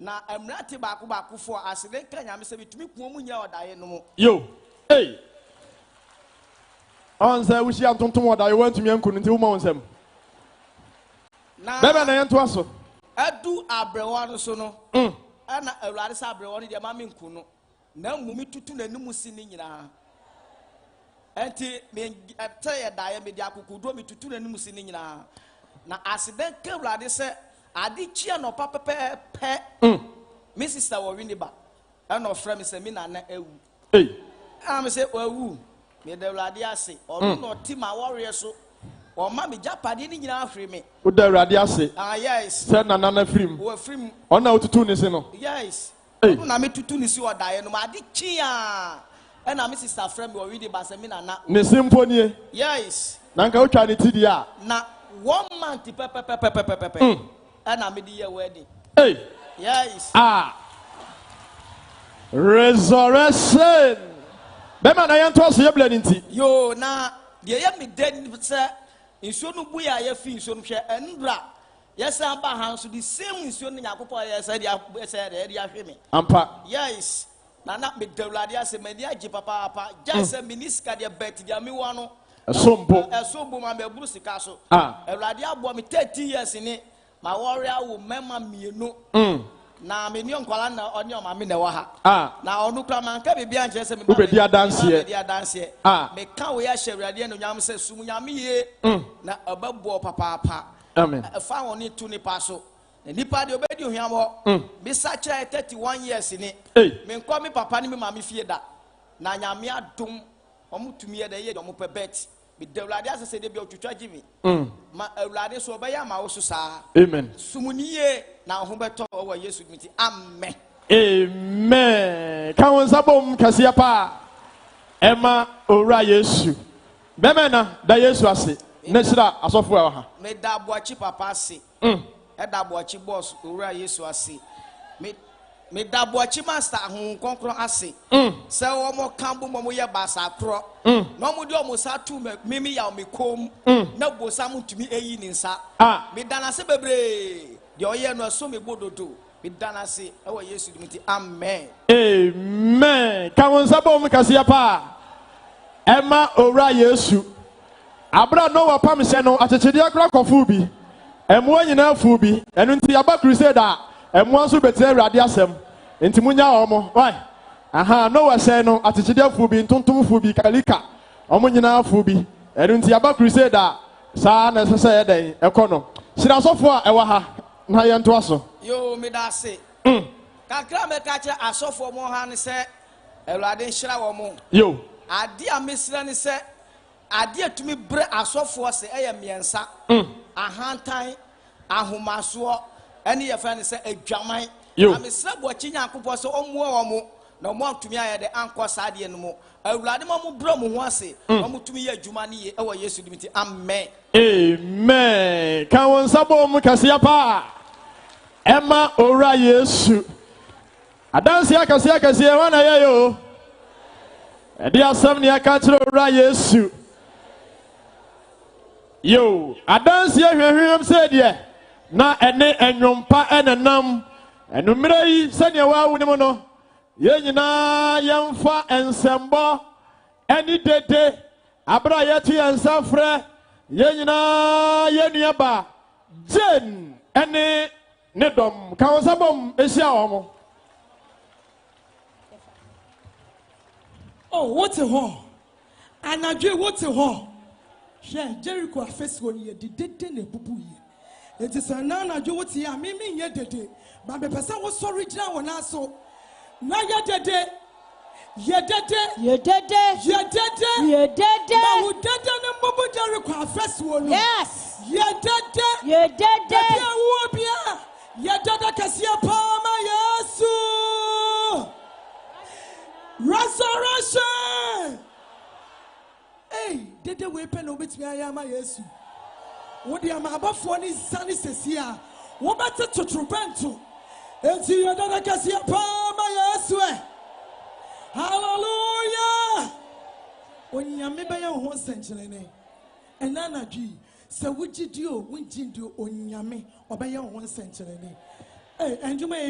na mmerante baako baako fo a asede nka nyame sɛ bitumi kua mu nyɛ ɔdaeɛ no mu yo hey ɔnsɛ wohyia ntontom ɔda yɛ woantumi anku no nti woma wo nsɛm na bɛbɛ na yɛntoa so adu abrɛwɔ no so no Mm. ɛna awurade sɛ abrɛwɔ no deɛ ma me nku no na mmom tutu n'anim si ne nyinaa ɛnti ɛtɛ yɛ daeɛ mede akokoduo metutu n'anim si ne nyinaa na asede nka awurade sɛ ade kyia nɔpa pɛpɛɛpɛ Mm. me sista wɔ winiba ɛna ɔfrɛ me sɛ me nana awu hey am sɛ wawu meda awurade ase ɔno na ɔte ma wɔreɛ so ɔma me gyapadeɛ no nyinaa hwere me woda awurade ase ah yes sɛ nana no afirim wɔafiri mu ɔno a wotutu ne se no yes Hey. ɔno na metutu ne si ɔdaeɛ no maade kyi a ɛna me sista frɛ me ɔwede ba sɛ me nana ne se mpo nie yes na nka wotwa ne ti deɛ a na one month pɛpɛpɛpɛpɛpɛpɛ ɛna mede yɛ wedding hey Ah. yes a resurrection bɛma na yɛntoa so yɛbla ne nti yo na deɛ yɛ me dɛ sɛ nsuo no bu yɛ a yɛfi nsuo no hwɛ ɛnbra yɛsan ba ha nso de same nsuo no nyankopɔn yɛ sɛ de ab- sɛ de- de ahwe me ampa yes na na meda awurade ase m'ani agye papaapa gyae sɛ meni sika deɛ bɛt deɛ mewɔ no ɛso mpo ɛso bom a maburu sika so Ah. awurade aboa me 30 years ni ma wɔre awo mɛma mmienu Mm. Ah. na meni nkwala na ɔne ɔmame na ɛwɔ ha a na ɔno kura manka biribi ankyerɛ sɛ meba Wobɛdi bɛ- adanseɛ. meba bɛdi adanseɛ Ah. Mm. meka wo yɛ ahyɛ awurade anuonyam sɛ sum nyame yie na ɛbɛboa wo papaapa Amen. Ɛ- ɛfa wo ne to nipa so na nipa deɛ ɔbɛdi ohwam Mm. hɔ mesa kyerɛ 31 years ni Ei. menkɔ me papa ne me maame fie da na nyame adom ɔmo tumi yɛ dɛ yɛ ɔmo pɛ bɛt meda awurade asɛ sɛ deɛ bia ɔtwitwa gye me Mm. ma awurade so ɔbɛyɛ ama wo so saa amen sum ne yie na wo ho bɛtɔ wo wɔ yesu dimi ti amen amen ka wo nsa bom kɛseɛ paa ɛma owura yesu bɛma na da yesu ase na hyira asɔfoɔ a ɛwɔ ha meda aboakyi papa ase Mm. ɛda aboakyi bɔs owura yesu ase Me- meda aboakyi master ahohom kɔnkorɔ ase sɛ wɔmɔ ka bo ma moyɛ baasa korɔ na ɔmode ɔmo sa to ma- mimi yaw me kom na bosa motumi ɛyi ne nsa Ah. meda no ase bebree deɛ ɔyɛ no ɛso me bododo meda no ase ɛwɔ yesu dimi ti amen amen ka wo nsa bom kɛseɛ paa ɛma owura yesu abera no wɔ pam hyɛ no akyekyedeɛ kora kɔfoo bi ɛmmoa nyinaa foo bi ɛno nti yɛaba crusade a ɛmmoa nso bɛtena awurade asɛm nti monya wɔ mo wi aha no wɔ hyɛn no akyekyedeɛ foo bi ntontom foo bi kalika ɔmo nyinaa foo bi ɛno nti yɛaba crusade a saa na ɛsɛ sɛ yɛdɛn ɛkɔ no hyira asɔfoɔ a ɛwɔ ha na yɛntoa so yoo meda ase kakra mɛka kyerɛ asɔfoɔ mo ha ne sɛ awurade nhyira wɔ mo yo ade a mesrɛ ne sɛ ade a tumi berɛ asɔfoɔ sɛ ɛyɛ mmiɛnsa ahantan ahomasoɔ ɛne yɛfrɛ ne sɛ adwaman Yo. na mesrɛ bɔkyi nyankopɔn sɛ ɔmmoa wɔ mo na ɔmo antumi ayɛ de ankɔ saa adeɛ no mu awurade ma mo berɛ mo ho ase na motumi yɛ adwuma no ye ɛwɔ yesu dim nti amen amen ka wɔn nsa bɔ mu kɛseɛ paa ɛma owura yesu adanseɛ kɛseɛ kɛseɛ wɔn na yɛyɛ o ɛde asɛm ne yɛka kyerɛ owura yesu yo adanseɛ hwɛhwɛm sɛ deɛ na ɛne ɛnwompa ɛnenam ɛnummerɛ yi sɛdeɛ wɔawo ne mu no yɛn nyinaa yɛmfa nsɛmbɔ ɛne dede abere a yɛto yɛn nsa frɛ yɛn nyinaa yɛn nua ba jane ɛne ne dɔm ka wɔn nsa bɔm ehyia wɔn. Oh, wote hɔ anadwe wote hɔ hwɛ jericho afesuo no yɛ de dede na ebubu yie eti sɛ na anadwe wote yɛ a mimi nyɛ dede ba mepɛ sɛ wosɔre gyina wɔn aso na yɛ dede yɛ dede Yedede. yɛ dede na wo Yedede. dede ne mbubu jericho afesuo no Yes. yɛ dede dede Yedede. awuo bia yɛ dede kɛseɛ paa ma yesu resurrection ei dede wei pɛ na wobɛtumi ayɛ ama yesu wode ama abɔfoɔ ne nsa ne sɛsie a wobɛte totorobɛnto enti yɛ dede kɛseɛ paa ma yesu ɛ hallelujah onyame bɛyɛ wo ho nsɛnkyerɛnne ɛna anadwo yi sɛ wogye di o wongye di o onyame ɔbɛyɛ wo ho nsɛnkyerɛnne Ɛy, ɛndwuma yɛ